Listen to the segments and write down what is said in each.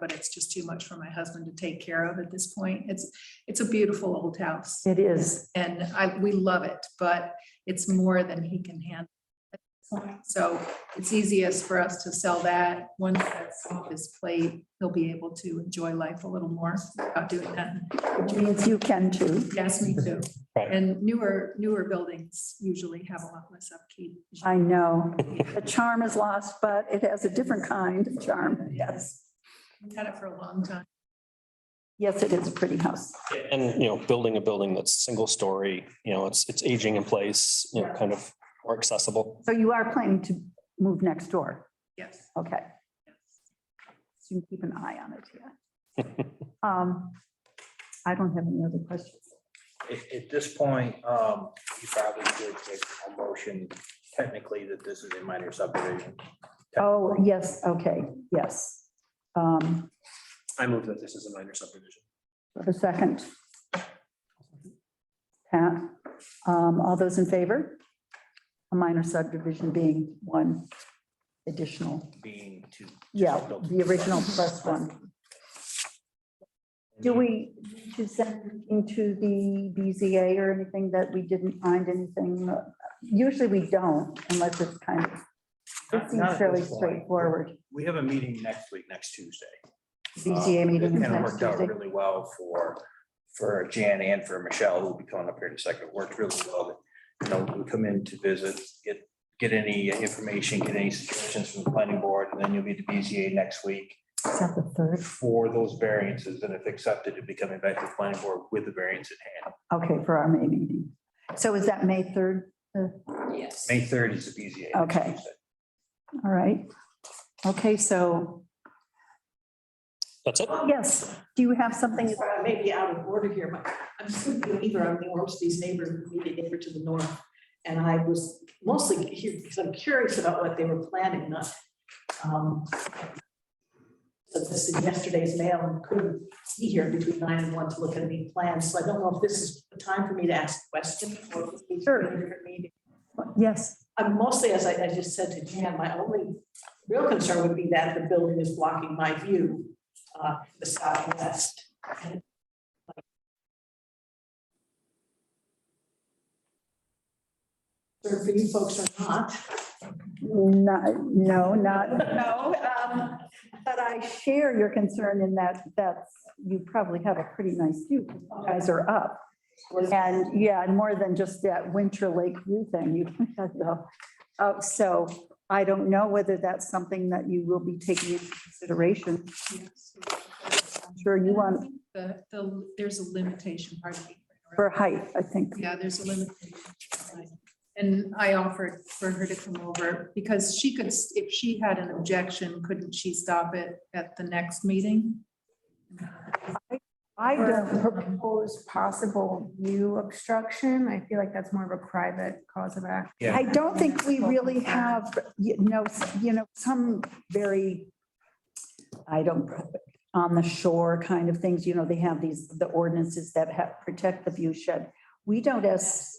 but it's just too much for my husband to take care of at this point. It's, it's a beautiful old house. It is. And I, we love it, but it's more than he can handle. at this point. So it's easiest for us to sell that. Once that's off his plate, he'll be able to enjoy life a little more without doing that. Which means you can too. Yes, me too. Right. And newer, newer buildings usually have a lot less upkeep. I know. The charm is lost, but it has a different kind of charm. Yes. We've had it for a long time. Yes, it is a pretty house. And, you know, building a building that's single story, you know, it's, it's aging in place, you know, kind of more accessible. So you are planning to move next door. Yes. Okay. So you keep an eye on it, yeah. Um, I don't have any other questions. At, at this point, um, you probably could take a motion technically that this is a minor subdivision. Oh, yes, okay, yes. Um, I move that this is a minor subdivision. for a second. Pat, um, all those in favor? A minor subdivision being one additional, Being to. yeah, the original plus one. Do we, to send into the BZA or anything that we didn't find anything? Usually we don't unless it's kind of, it Not- not seems at fairly this point. straightforward. We have a meeting next week, next Tuesday. Um, BZA meeting is And it next worked out Tuesday. really well for, for Jan and for Michelle, who'll be coming up here in a second. It Worked really well. that, You know, we come in to visit, get, get any information, get any suggestions from the planning board, and then you'll be at the BZA next week Is that the third? for those variances. And if accepted, it'd be coming back to the planning board with the variance at hand. Okay, for our May meeting. So is that May 3rd? May third is the BZA. next Okay. Tuesday. All right. Okay, so, That's it. yes, do you have something? Sorry, I may be out of order here, but I'm still either on the Ormsby's neighbor, immediate neighbor to the north. And I was mostly here because I'm curious about what they were planning, not. um, So this is yesterday's mail and couldn't be here between nine and one to look at any plans. So I don't know if this is the time for me to ask questions or if it's a different meeting. Yes, I'm mostly, as I, I just said to Jan, my only real concern would be that the building is blocking my view, uh, the southwest. Or for you folks or not. not, no, not, No, um, but I share your concern in that, that's, you probably have a pretty nice view. You Guys are up. And yeah, and more than just that winter lake view thing, you have the, oh, so I don't know whether that's something that you will be taking into consideration. I'm sure you want, The, the, there's a limitation, pardon me. for height, I think. Yeah, there's a limitation. And I offered for her to come over because she could, s- if she had an objection, couldn't she stop it at the next meeting? I Or- don't propose possible view obstruction. I feel like that's more of a private cause of action. I don't think we really have, you know, s- you know, some very, I don't, on the shore kind of things, you know, they have these, the ordinances that have, protect the view shed. We don't as,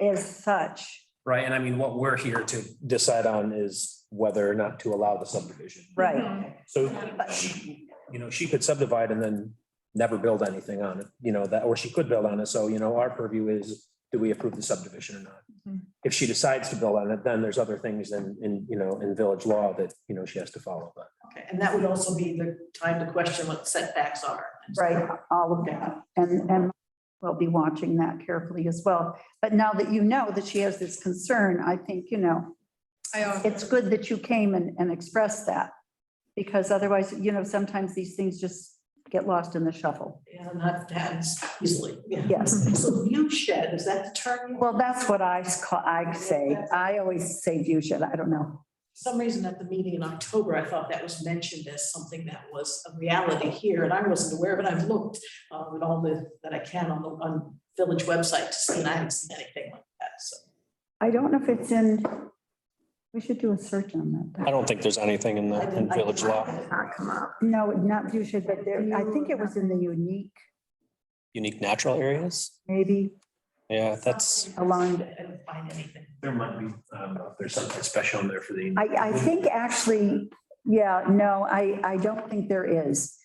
as such, Right. And I mean, what we're here to decide on is whether or not to allow the subdivision. right? So But she, you know, she could subdivide and then never build anything on it, you know, that, or she could build on it. So, you know, our purview is, do we approve the subdivision or not? Mm-hmm. Mhm. If she decides to build on it, then there's other things in, in, you know, in village law that, you know, she has to follow, but. Okay, and that would also be the time to question what setbacks are. Right, all of that. And, and we'll be watching that carefully as well. But now that you know that she has this concern, I think, you know, I offered, it's good that you came and, and expressed that. Because otherwise, you know, sometimes these things just get lost in the shuffle. And not that easily. yeah. Yes. So view shed, is that the term? Well, that's what I, s- call- I say. I always say view shed. I don't know. For some reason at the meeting in October, I thought that was mentioned as something that was a reality here, and I wasn't aware, but I've looked um, at all the, that I can on the, on village website to see, and I haven't seen anything like that, so. I don't know if it's in, we should do a search on I that. don't think there's anything in I the, in didn't- I village law didn't- Not come up. No, not view shed, but there, I think it was in the unique, unique natural areas. maybe Yeah, that's, along. I didn't find anything. there might be, I don't know, if there's something special in there for the. I, I think actually Yeah, no, I, I don't think there is.